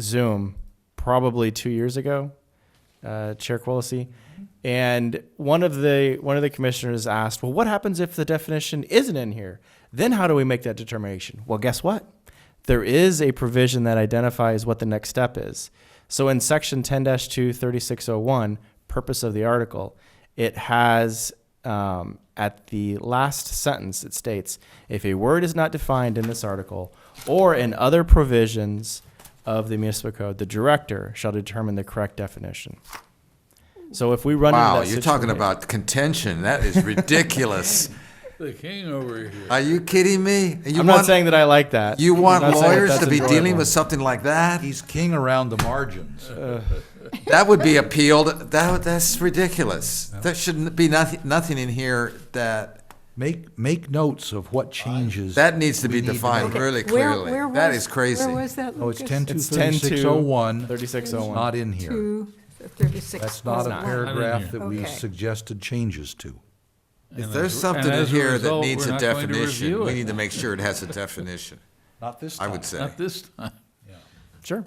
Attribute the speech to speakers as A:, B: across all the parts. A: Zoom probably two years ago, uh, Chair Quillisi. And one of the one of the commissioners asked, "Well, what happens if the definition isn't in here? Then how do we make that determination?" Well, guess what? There is a provision that identifies what the next step is. So in section 10-2 3601, purpose of the article, it has um, at the last sentence it states, "If a word is not defined in this article or in other provisions of the municipal code, the director shall determine the correct definition." So if we run
B: Wow,
A: into that
B: you're talking
A: situation-
B: about contention. That is ridiculous.
C: The king over here.
B: Are you kidding me? You
A: I'm not
B: want,
A: saying that I like that.
B: you
A: I'm
B: want
A: not saying that
B: lawyers
A: that's
B: to be dealing
A: enjoyable.
B: with something like that?
C: He's king around the margins.
B: That would be appealed. That would- that's ridiculous. There shouldn't be nothing nothing in here that
C: Make, make notes of what changes.
B: that needs to be
C: We need to
B: defined
C: know.
B: really
D: Where-
B: clearly.
D: where
B: that
D: was-
B: is crazy.
D: Where was that,
C: Oh, it's
D: Lucas?
C: ten to
A: It's 10 to
C: thirty-six oh one.
A: 3601.
C: Not in here.
D: Two, thirty-six.
C: That's not a
D: Not in
C: paragraph that we
D: Okay.
C: suggested changes to.
B: If there's something in here that needs a definition, we need to make sure it has a definition.
C: Not this
B: I would say.
E: Not this time.
A: Sure.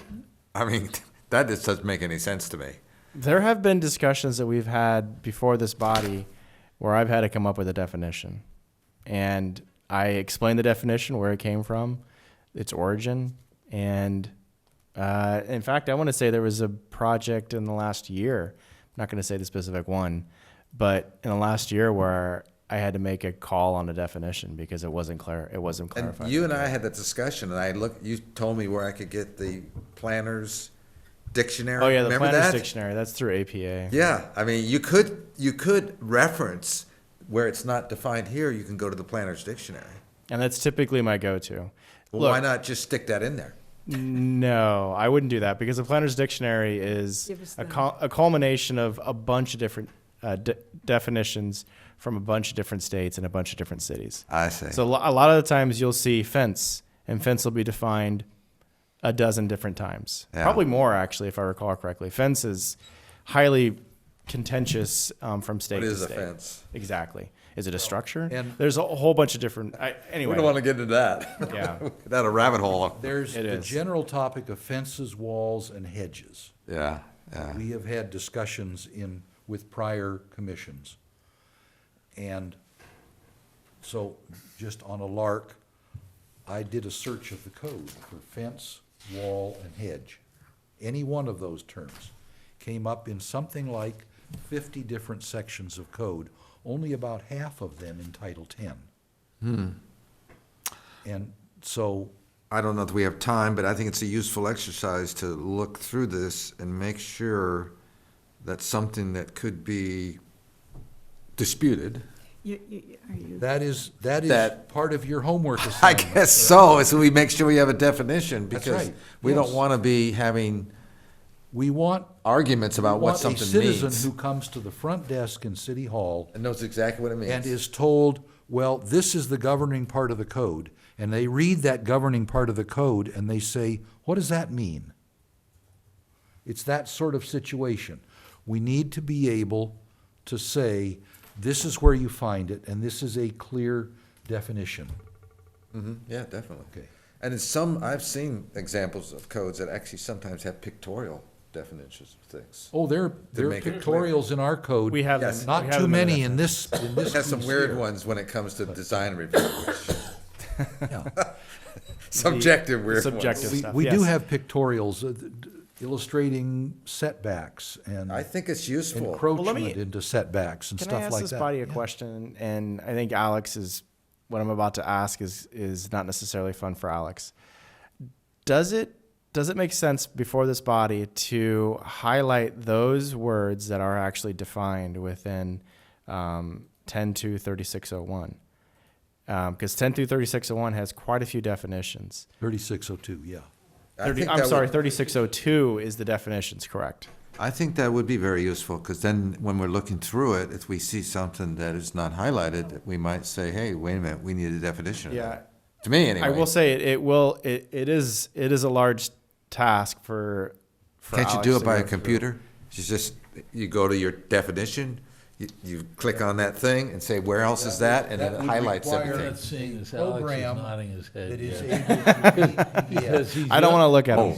B: I mean, that just doesn't make any sense to me.
A: There have been discussions that we've had before this body where I've had to come up with a definition. And I explained the definition, where it came from, its origin. And uh, in fact, I want to say there was a project in the last year, I'm not going to say the specific one, but in the last year where I had to make a call on a definition because it wasn't clear. It wasn't
B: And
A: clarified.
B: you and I had that discussion, and I looked, you told me where I could get the planner's dictionary.
A: oh yeah, the
B: Remember
A: planner's
B: that?
A: dictionary. That's through APA.
B: Yeah, I mean, you could, you could reference where it's not defined here, you can go to the planner's dictionary.
A: And that's typically my go-to.
B: Well, why not just stick that in there?
A: No, I wouldn't do that because the Planner's Dictionary is
D: Give us
A: a,
D: the-
A: cul- a culmination of a bunch of different uh, de- definitions from a bunch of different states and a bunch of different cities.
B: I see.
A: So a lo- a lot of the times you'll see fence, and fence will be defined a dozen different times.
B: Yeah.
A: Probably more, actually, if I recall correctly. Fence is highly contentious um, from state
B: What
A: to
B: is a
A: state.
B: fence?
A: Exactly. Is it a structure?
C: and-
A: There's a whole bunch of different. I, anyway,
B: We don't want to get into that.
A: Yeah.
B: That a rabbit hole.
C: There's
A: It
C: the
A: is.
C: general topic of fences, walls, and hedges.
B: Yeah, yeah.
C: We have had discussions in, with prior commissions. And so, just on a lark, I did a search of the code for fence, wall, and hedge. Any one of those terms came up in something like fifty different sections of code, only about half of them in Title Ten.
B: Hmm.
C: And so,
B: I don't know if we have time, but I think it's a useful exercise to look through this and make sure that something that could be disputed.
D: You- you- are you-
C: that is, that is
B: That-
C: part of your homework
B: I
C: assignment.
B: guess so, is we make sure we have a definition,
C: That's
B: because
C: right,
B: we don't
C: yes.
B: want to be having
C: We want
B: arguments about what
C: want a
B: something
C: citizen
B: means.
C: who comes to the front desk in City Hall
B: And knows exactly what it
C: and
B: means.
C: is told, well, this is the governing part of the code, and they read that governing part of the code and they say, what does that mean? It's that sort of situation. We need to be able to say, this is where you find it, and this is a clear definition.
B: Yeah, definitely.
C: Okay.
B: And in some, I've seen examples of codes that actually sometimes have pictorial definitions of things.
C: Oh, there, there are
B: make it clear.
C: pictorials in our code.
A: we have
B: Yes.
A: them- we
C: Not
A: have
C: too
A: them in the-
C: many in this, in this.
B: Has some
C: piece
B: weird
C: here.
B: ones when it comes to design review, which-
C: Yeah.
B: subjective weird ones.
A: subjective
C: We,
A: stuff.
C: we do
A: yes.
C: have pictorials uh, th- d- illustrating setbacks and
B: I think it's useful.
A: me-
C: encroachment into setbacks and
A: Can
C: stuff like
A: I
C: that.
A: ask this body a
C: Yeah.
A: question? And I think Alex is what I'm about to ask is is not necessarily fun for Alex. Does it does it make sense before this body to highlight those words that are actually defined within um, 10 to 3601? Because 10 through 3601 has quite a few definitions.
C: 3602, yeah.
B: I
A: 30,
B: think
A: I'm
B: that would-
A: sorry, 3602 is the definitions, correct?
B: I think that would be very useful, because then when we're looking through it, if we see something that is not highlighted, we might say, hey, wait a minute, we need a definition of
A: Yeah.
B: that. To me, anyway.
A: I will say it, it will it, it is it is a large task for. for
B: Can't you
A: Alex
B: do
A: to
B: it by
A: go
B: a
A: through.
B: computer? You just, you go to your definition, you, you click on that thing and say, where else is that? And then it
C: would
B: highlights
C: require
E: You're
B: everything.
E: not seeing this, Alex is
C: Program
E: nodding his head.
C: That
E: yes.
C: is able to be- yeah.
E: Because he's
A: I don't
E: not-
B: Oh.
A: want to look at it.